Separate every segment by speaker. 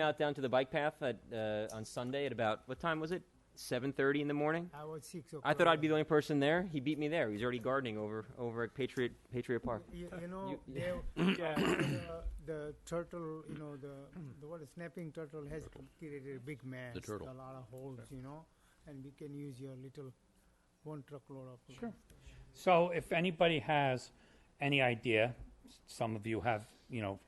Speaker 1: out down to the bike path at, uh, on Sunday at about what time was it? Seven thirty in the morning.
Speaker 2: I was six o'clock.
Speaker 1: I thought I'd be the only person there. He beat me there. He was already gardening over over at Patriot Patriot Park.
Speaker 2: You, you know,
Speaker 1: You-
Speaker 2: they, the, the turtle, you know, the, the what, snapping turtle has created a big mess.
Speaker 3: The turtle.
Speaker 2: A lot of holes, you know, and we can use your little one truckload of.
Speaker 4: Sure. So if anybody has any idea, s- some of you have, you know,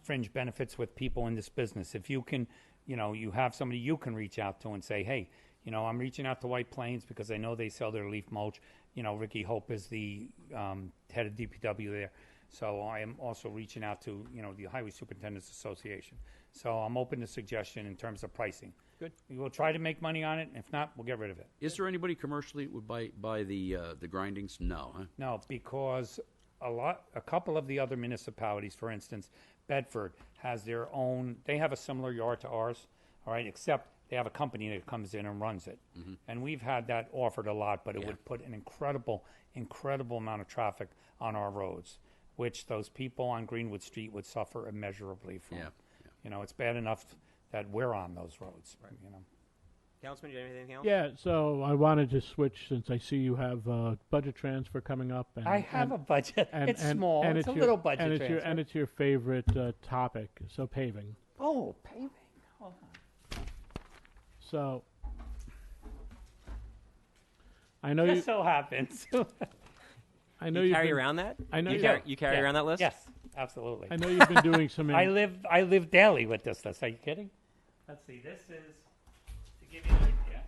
Speaker 4: fringe benefits with people in this business. If you can, you know, you have somebody you can reach out to and say, hey, you know, I'm reaching out to White Plains because I know they sell their leaf mulch. You know, Ricky Hope is the um, head of DPW there. So I am also reaching out to, you know, the Highway Superintendent's Association. So I'm open to suggestion in terms of pricing.
Speaker 1: Good.
Speaker 4: We will try to make money on it. and If not, we'll get rid of it.
Speaker 3: Is there anybody commercially that would buy, buy the, uh, the grindings? No, huh?
Speaker 4: No, because a lot, a couple of the other municipalities, for instance, Bedford has their own, they have a similar yard to ours, all right, except they have a company that comes in and runs it. And we've had that offered a lot, but it would put an incredible, incredible amount of traffic on our roads, which those people on Greenwood Street would suffer immeasurably from.
Speaker 3: Yeah, yeah.
Speaker 4: You know, it's bad enough that we're on those roads, you know.
Speaker 1: Councilman, do you have anything else?
Speaker 5: Yeah, so I wanted to switch since I see you have a budget transfer coming up. And,
Speaker 4: I have
Speaker 5: and-
Speaker 4: a budget.
Speaker 5: and-
Speaker 4: It's
Speaker 5: and-
Speaker 4: small.
Speaker 5: and
Speaker 4: It's a
Speaker 5: your-
Speaker 4: little budget
Speaker 5: and it's your-
Speaker 4: transfer.
Speaker 5: And it's your favorite uh, topic, so paving.
Speaker 4: Oh, paving, hold on.
Speaker 5: So I know you.
Speaker 4: Just so happens.
Speaker 5: I know
Speaker 1: You
Speaker 5: you've
Speaker 1: carry
Speaker 5: been-
Speaker 1: around that?
Speaker 5: I know
Speaker 1: you
Speaker 5: you've
Speaker 1: carry,
Speaker 5: been-
Speaker 1: you carry
Speaker 4: Yeah.
Speaker 1: around that list.
Speaker 4: Yes, absolutely.
Speaker 5: I know you've been doing some.
Speaker 4: I live I live daily with this list. Are you kidding? Let's see. This is to give you an idea.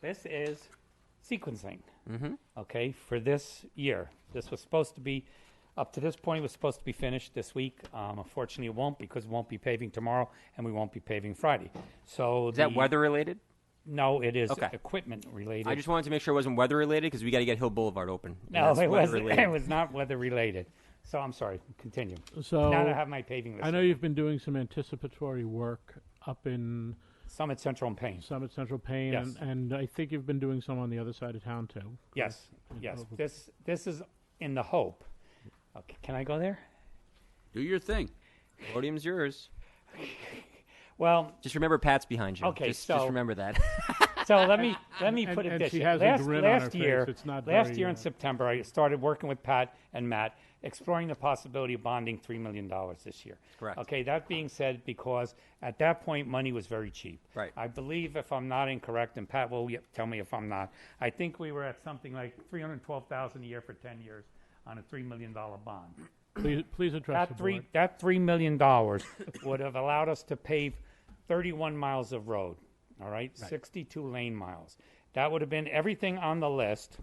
Speaker 4: This is sequencing. Mm-hmm. Okay, for this year, this was supposed to be up to this point. It was supposed to be finished this week. Um, unfortunately, it won't because we won't be paving tomorrow, and we won't be paving Friday. So
Speaker 1: Is that
Speaker 4: the-
Speaker 1: weather related?
Speaker 4: No, it is
Speaker 1: Okay.
Speaker 4: equipment related.
Speaker 1: I just wanted to make sure it wasn't weather related because we got to get Hill Boulevard open. and
Speaker 4: no,
Speaker 1: that's
Speaker 4: it
Speaker 1: weather
Speaker 4: was
Speaker 1: related.
Speaker 4: it was not weather related. So I'm sorry. Continue.
Speaker 5: so
Speaker 4: now that I have my paving list.
Speaker 5: I know
Speaker 4: ready.
Speaker 5: you've been doing some anticipatory work up in
Speaker 4: Summit Central and Payne.
Speaker 5: Summit Central Payne,
Speaker 4: Yes.
Speaker 5: and, and I think you've been doing some on the other side of town too.
Speaker 4: Yes, yes. This this is in the hope. Okay, can I go there?
Speaker 3: Do your thing.
Speaker 1: Podium's yours.
Speaker 4: Well,
Speaker 1: Just remember, Pat's behind you.
Speaker 4: Okay,
Speaker 1: just,
Speaker 4: so-
Speaker 1: just remember that.
Speaker 4: so let me let me
Speaker 5: And-
Speaker 4: put it
Speaker 5: and
Speaker 4: this
Speaker 5: she
Speaker 4: way.
Speaker 5: has a
Speaker 4: last,
Speaker 5: grin on
Speaker 4: last
Speaker 5: her face.
Speaker 4: year,
Speaker 5: It's not
Speaker 4: last
Speaker 5: very,
Speaker 4: year
Speaker 5: uh,
Speaker 4: in September, I started working with Pat and Matt, exploring the possibility of bonding three million dollars this year.
Speaker 1: Correct.
Speaker 4: Okay. That being said, because at that point money was very cheap.
Speaker 1: Right.
Speaker 4: I believe, if I'm not incorrect, and Pat will y- tell me if I'm not. I think we were at something like three hundred twelve thousand a year for ten years on a three million dollar bond.
Speaker 5: Please, please address the
Speaker 4: that three
Speaker 5: board.
Speaker 4: that three million dollars would have allowed us to pave 31 miles of road. All right, 62 lane miles. That would have been everything on the list.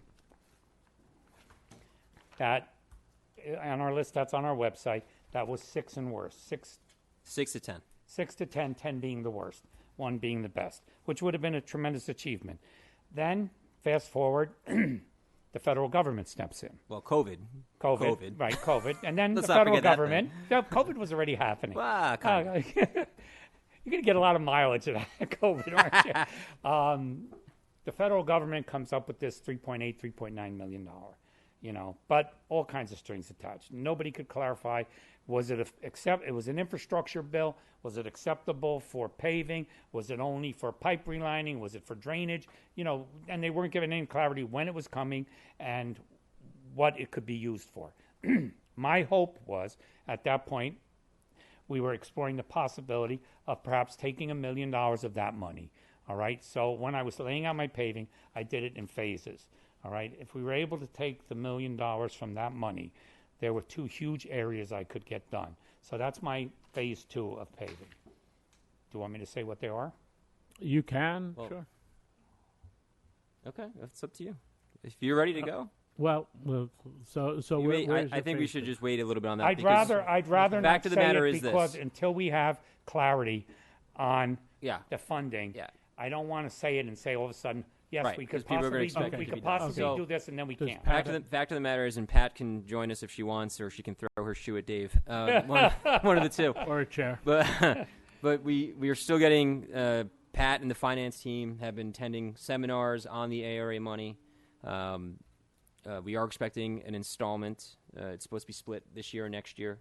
Speaker 4: That eh, on our list that's on our website. That was six and worse. Six
Speaker 1: Six to ten.
Speaker 4: six to 10, 10 being the worst, one being the best, which would have been a tremendous achievement. Then fast forward, the federal government steps in.
Speaker 1: Well, COVID.
Speaker 4: COVID,
Speaker 1: COVID.
Speaker 4: right? COVID, and then the
Speaker 1: Let's not
Speaker 4: federal
Speaker 1: forget that
Speaker 4: government. No, COVID was already happening.
Speaker 1: Ah, come
Speaker 4: Uh, you're going to get a lot of mileage out of COVID, aren't you? um, the federal government comes up with this 3.8, 3.9 million dollar, you know, but all kinds of strings attached. Nobody could clarify was it a, except it was an infrastructure bill? Was it acceptable for paving? Was it only for pipe relining? Was it for drainage? You know, and they weren't given any clarity when it was coming and what it could be used for. My hope was at that point, we were exploring the possibility of perhaps taking a million dollars of that money. All right. So when I was laying out my paving, I did it in phases. All right. If we were able to take the million dollars from that money, there were two huge areas I could get done. So that's my phase two of paving. Do you want me to say what they are?
Speaker 5: You can,
Speaker 1: Well-
Speaker 5: sure.
Speaker 1: Okay, that's up to you. If you're ready to go,
Speaker 5: Well, well, so so
Speaker 1: You
Speaker 5: where,
Speaker 1: may-
Speaker 5: where's
Speaker 1: I, I
Speaker 5: your
Speaker 1: think we
Speaker 5: phase
Speaker 1: should
Speaker 5: two?
Speaker 1: just wait a little bit on that.
Speaker 4: I'd
Speaker 1: because-
Speaker 4: rather I'd rather
Speaker 1: Back
Speaker 4: not
Speaker 1: to the
Speaker 4: say
Speaker 1: matter
Speaker 4: it
Speaker 1: is this.
Speaker 4: because until we have clarity on
Speaker 1: Yeah.
Speaker 4: the funding,
Speaker 1: Yeah.
Speaker 4: I don't want to say it and say all of a sudden, yes,
Speaker 1: Right,
Speaker 4: we
Speaker 1: 'cause
Speaker 4: could
Speaker 1: people are gonna
Speaker 4: possibly
Speaker 1: expect
Speaker 4: do,
Speaker 5: it
Speaker 4: we
Speaker 5: to
Speaker 4: could
Speaker 5: be done.
Speaker 4: possibly
Speaker 1: Okay.
Speaker 4: do this and then we
Speaker 5: Does
Speaker 4: can't.
Speaker 1: Back to the fact of the matter is, and Pat can join us if she wants, or she can throw her shoe at Dave. Um, one, one of the two.
Speaker 5: or a chair.
Speaker 1: But but we we are still getting uh, Pat and the finance team have been attending seminars on the ARA money. Um, uh, we are expecting an installment. Uh, it's supposed to be split this year or next year.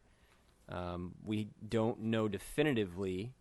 Speaker 1: Um, we don't know definitively